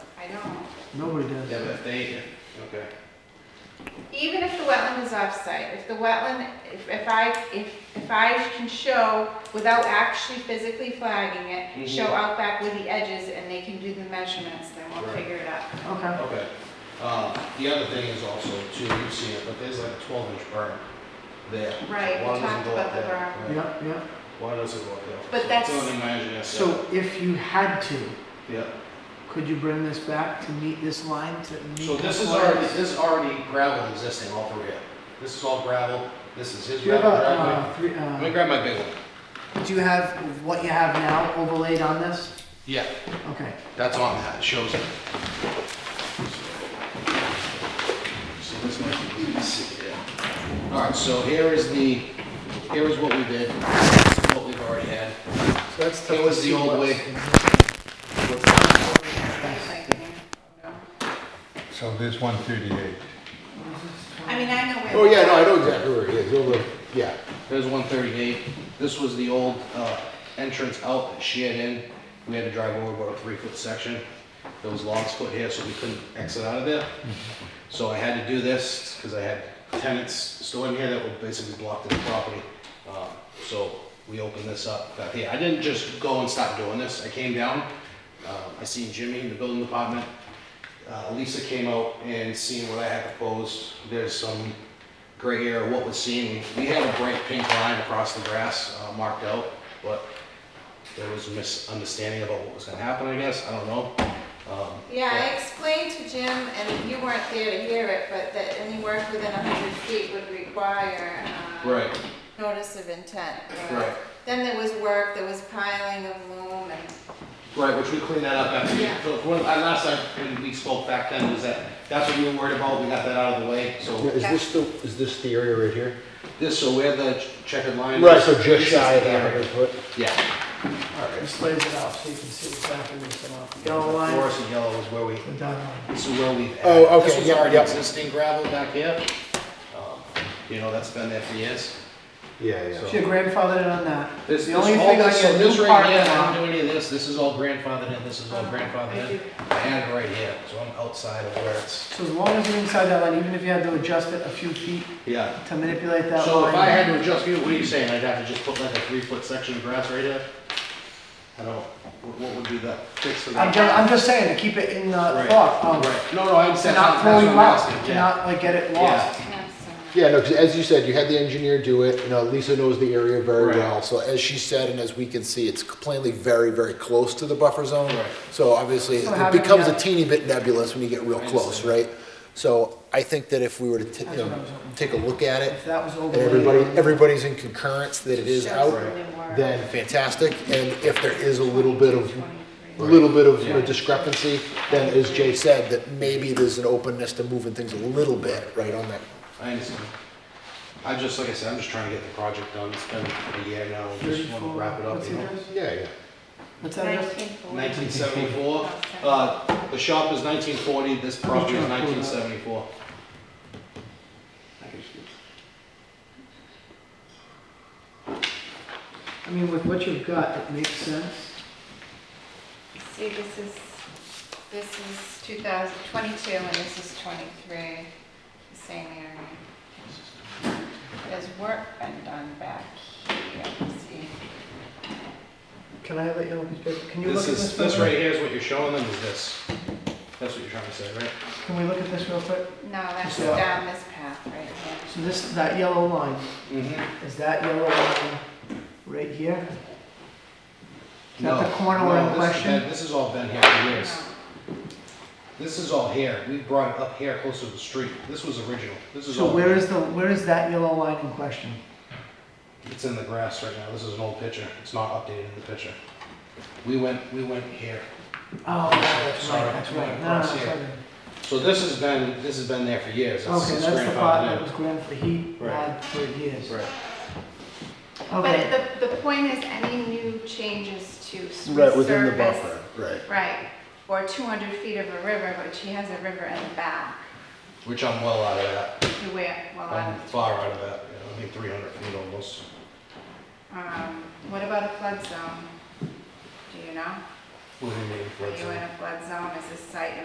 I don't. Nobody Yeah, does. but if they, okay. Even if the wetland is off-site, if the wetland, if if I, if, if I can show without actually physically flagging it, show Mhm. out back with the edges and they can do the measurements, then we'll Right. figure it out. Okay. Okay. Uh, the other thing is also too, you've seen it, but there's like a twelve inch berm there. Right, we Why doesn't talked go up about the there? berm. Right. Yep, yep. Why does it go up there? But So that's- It's only managing that. So if you had to, Yeah. could you bring this back to meet this line to meet? So this is compliance? already, this is already gravel existing all through here. This is all gravel. This is his Do you have a, gravel driveway. uh, three, Let me uh, grab my big one. do you have what you have now overlaid on this? Yeah, Okay. that's on that. It shows it. So this might be easy to see, yeah. All right, so here is the, here is what we did, what we've already had. So that's It was the old way. Like, you know. So there's 138. I mean, I know where. Oh, yeah, no, I know exactly where it is, over, yeah. There's 138. This was the old uh, entrance out that she had in. We had to drive over about a three-foot section. There was logs put here, so we couldn't exit out of there. So I had to do this because I had tenants still in here that were basically blocked in the property. Um, So we opened this up back here. I didn't just go and stop doing this. I came down. um, I seen Jimmy in the building department. Uh, Lisa came out and seen what I had proposed. There's some gray area, what was seen. We had a bright pink line across the grass uh, marked out, but there was a misunderstanding about what was gonna happen, I guess, I don't know. Um, Yeah, I explained to Jim, and you weren't there to hear it, but that any work within a hundred feet would require, uh, Right, notice of intent. or- Right. Then there was work, there was piling of loom and right, which we cleaned that up after, Yeah. so, when, I- last time, when we spoke back then, was that, that's what you were worried about, we got that out of the way, so Is this the, is this the area right here? this, so where the checkered line. Right, is, so just this is shy of the that area. hundred foot? Yeah. Just lays it out so you can see exactly what's going on. Yellow The line, Forest and yellow is where we, the dotted line. this is where we. Oh, okay, This was yep, already yep. existing gravel back here. Um, You know, that's been there for years. Yeah, yeah. So your grandfather on that. This, The this, only all thing I this, so get this new right parking here, I lot. don't do any of this, this is all grandfathered in, this is Oh, all grandfathered in. I had it right here, so I'm outside of where it's, So as long as you're inside that line, even if you had to adjust it a few feet yeah. to manipulate that line. So if I had to adjust you, what are you saying, I'd have to just put like a three foot section of grass right here? I don't, what what would be the fix for I'm that? just, I'm just saying to keep it in the Right, thought of Right, no, no, I understand, not that's what throwing I'm out, asking, to yeah. not like get it Yeah. lost. Yeah, no, 'cause as you said, you had the engineer do it, you know, Lisa knows the area very Right. well. So as she said, and as we can see, it's plainly very, very close to the buffer zone. Right. So obviously, So it having becomes a that- teeny bit nebulous when you get real I close, understand. right? So I think that if we were to, t- you That's what I know, was hoping. take a look at it, If that was and overlaid. everybody, everybody's in concurrence that it is Shows out, something more. then fantastic. And if there is a little bit of, a little bit of you know, Yeah. discrepancy, then as Jay said, that maybe there's an openness to moving things a little bit, right, on that. I understand. I just, like I said, I'm just trying to get the project done, it's been a year now, I just wanna Thirty-four, wrap it up, what's you the know? address? Yeah, yeah. What's that address? 1974. Uh, The shop is 1940, this property is 1974. I mean, with what you've got, it makes sense. See, this is, this is 2022 and this is 23, the same area. There's work been done back here, see. Can I let you look at this paper? Can you look This at this? is, this real right quick? here is what you're showing them is this. That's what you're trying to say, right? Can we look at this real quick? No, that's So- down this path right here. So this, that yellow line, Mm-hmm. is that yellow line right here? Is that the corner we're in question? This has all been here for No. years. This is all here, we brought it up here closer to the street. This was original, this is all. So where is the, where is that yellow line in question? It's in the grass right now, this is an old picture, it's not updated in the picture. We went, we went here. Oh, that's Sorry, right, that's I'm right. going No, no, across that's here. right. So this has been, this has been there for years. This Okay, is that's the grandfathered thought in. that was grand for he Right. had for years. Right. Okay, But the, the point is any new changes to Right, within the surface- buffer, right. Right, or 200 feet of a river, but she has a river in the back. Which I'm well out of that. You wear, well, I'm I'm- far out of that. you know, I think 300 feet almost. um, what about a flood zone? Do you know? What do you mean, Are flood you zone? in a flood zone? Is this site